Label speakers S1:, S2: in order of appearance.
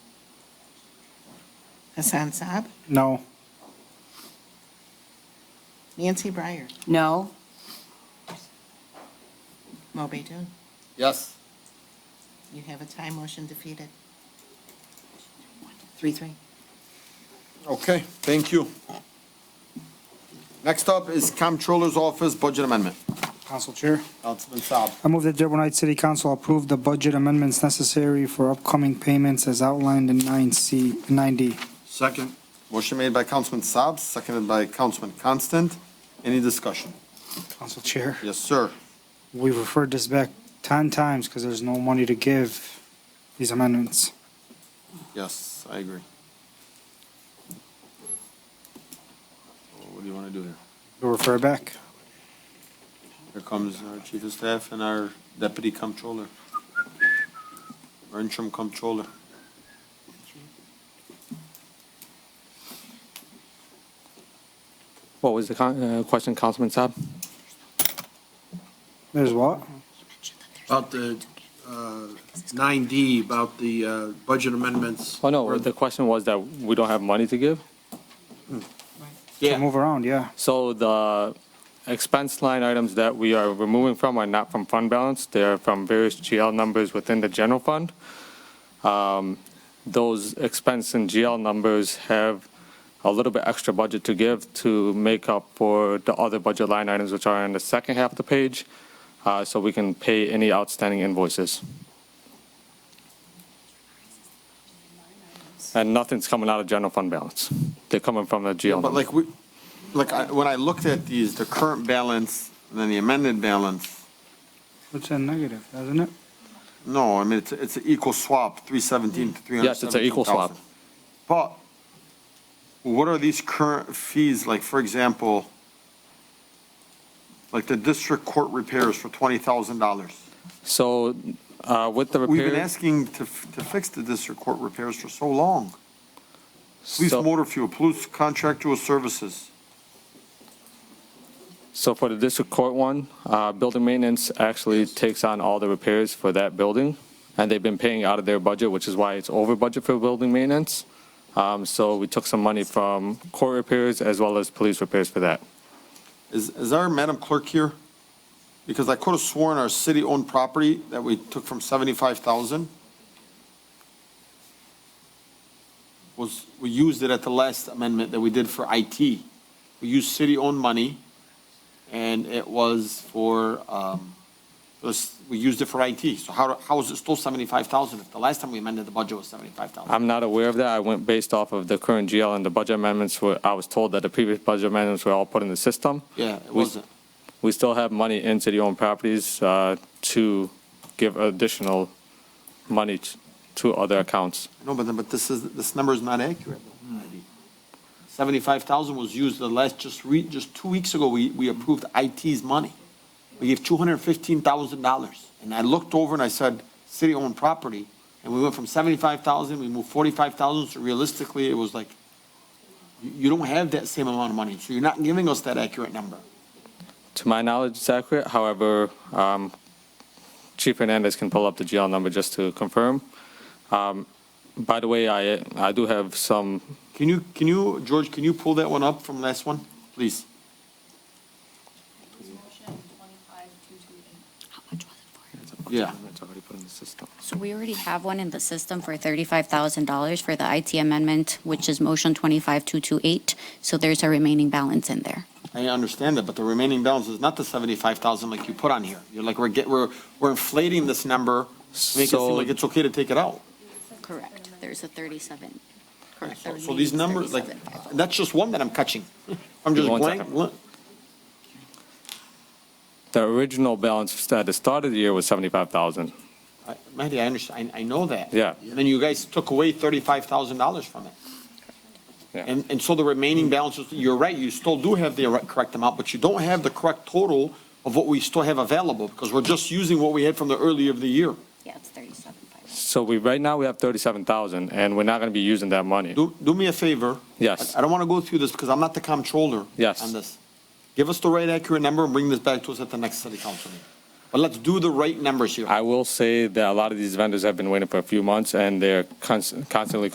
S1: Hassan Saab,
S2: No.
S1: Nancy Breyer,
S3: No.
S1: Mo Betoon.
S4: Yes.
S1: You have a tie motion defeated. Three, three.
S4: Okay, thank you. Next up is Comptroller's Office Budget Amendment.
S2: Council Chair,
S4: Councilman Saab.
S2: I move that Dearborn Heights City Council approve the budget amendments necessary for upcoming payments as outlined in 9C, 9D.
S4: Second. Motion made by Councilman Saab, seconded by Councilman Constant. Any discussion?
S2: Council Chair,
S4: Yes, sir.
S2: we referred this back 10 times because there's no money to give these amendments.
S4: Yes, I agree. What do you want to do here?
S2: We refer back.
S4: Here comes our Chief of Staff and our Deputy Comptroller. Our interim Comptroller.
S5: What was the con- uh, question, Councilman Saab?
S2: There's what?
S6: About the uh, 9D, about the uh, budget amendments.
S5: Oh, no, the question was that we don't have money to give?
S2: To Move around, yeah.
S5: So the expense line items that we are removing from are not from fund balance. They're from various GL numbers within the general fund. Um, Those expense and GL numbers have a little bit extra budget to give to make up for the other budget line items, which are in the second half of the page, uh, so we can pay any outstanding invoices. And nothing's coming out of general fund balance. They're coming from the GL.
S4: But
S5: numbers.
S4: like, we, like, I- when I looked at these, the current balance and then the amended balance,
S2: It's a negative, doesn't it?
S4: no, I mean, it's, it's an equal swap, 317 to 317,000.
S5: Yes, it's an equal swap.
S4: But what are these current fees, like, for example, like the district court repairs for $20,000?
S5: So uh, with the
S4: We've been
S5: repair,
S4: asking to, f- to fix the district court repairs for so long. Police
S5: so
S4: motor fuel, police contractual services.
S5: so for the district court one, uh, building maintenance actually takes on all the repairs for that building, and they've been paying out of their budget, which is why it's over budget for building maintenance. Um, So we took some money from court repairs as well as police repairs for that.
S4: Is, is our Madam Clerk here? Because I could have sworn our city-owned property that we took from 75,000 was, we used it at the last amendment that we did for IT. We used city-owned money, and it was for, um, it was, we used it for IT. So how, how is it still 75,000 if the last time we amended the budget was 75,000?
S5: I'm not aware of that. I went based off of the current GL and the budget amendments. were- I was told that the previous budget amendments were all put in the system.
S4: Yeah, it
S5: We-
S4: wasn't.
S5: We still have money in city-owned properties uh, to give additional money t- to other accounts.
S4: No, but, but this is, this number is not accurate. though, Ivy. 75,000 was used the last, just re, just two weeks ago, we, we approved IT's money. We gave $215,000. And I looked over and I said, city-owned property, and we went from 75,000, we moved 45,000, so realistically, it was like, you, you don't have that same amount of money, so you're not giving us that accurate number.
S5: To my knowledge, it's accurate. However, um, Chief Hernandez can pull up the GL number just to confirm. Um, By the way, I, I do have some,
S4: Can you, can you, George, can you pull that one up from last one, please?
S7: How much was it for?
S4: Yeah.
S7: So we already have one in the system for thirty-five thousand dollars for the IT amendment, which is motion twenty-five two two eight. So there's a remaining balance in there.
S4: I understand that, but the remaining balance is not the seventy-five thousand like you put on here. You're like, we're get, we're, we're inflating this number, to make it seem
S5: So-
S4: like it's okay to take it out.
S7: Correct. There's a thirty-seven. Correct.
S4: So so these numbers, like, that's just one that I'm catching. I'm just
S5: Give me one
S4: blank,
S5: second.
S4: blank-
S5: the original balance at the start of the year was 75,000.
S4: I- Mehdi, I understand, I, I know that.
S5: Yeah.
S4: And then you guys took away thirty-five thousand dollars from it.
S5: Yeah.
S4: And, and so the remaining balances, you're right, you still do have the correct- correct amount, but you don't have the correct total of what we still have available, because we're just using what we had from the early of the year.
S7: oh. Yeah, it's thirty-seven five.
S5: So we, right now, we have 37,000, and we're not going to be using that money.
S4: Do, do me a favor.
S5: Yes.
S4: I I don't want to go through this because I'm not the comptroller.
S5: Yes.
S4: On this. Give us the right accurate number and bring this back to us at the next city council meeting. But let's do the right numbers here.
S5: I will say that a lot of these vendors have been waiting for a few months, and they're cons- constantly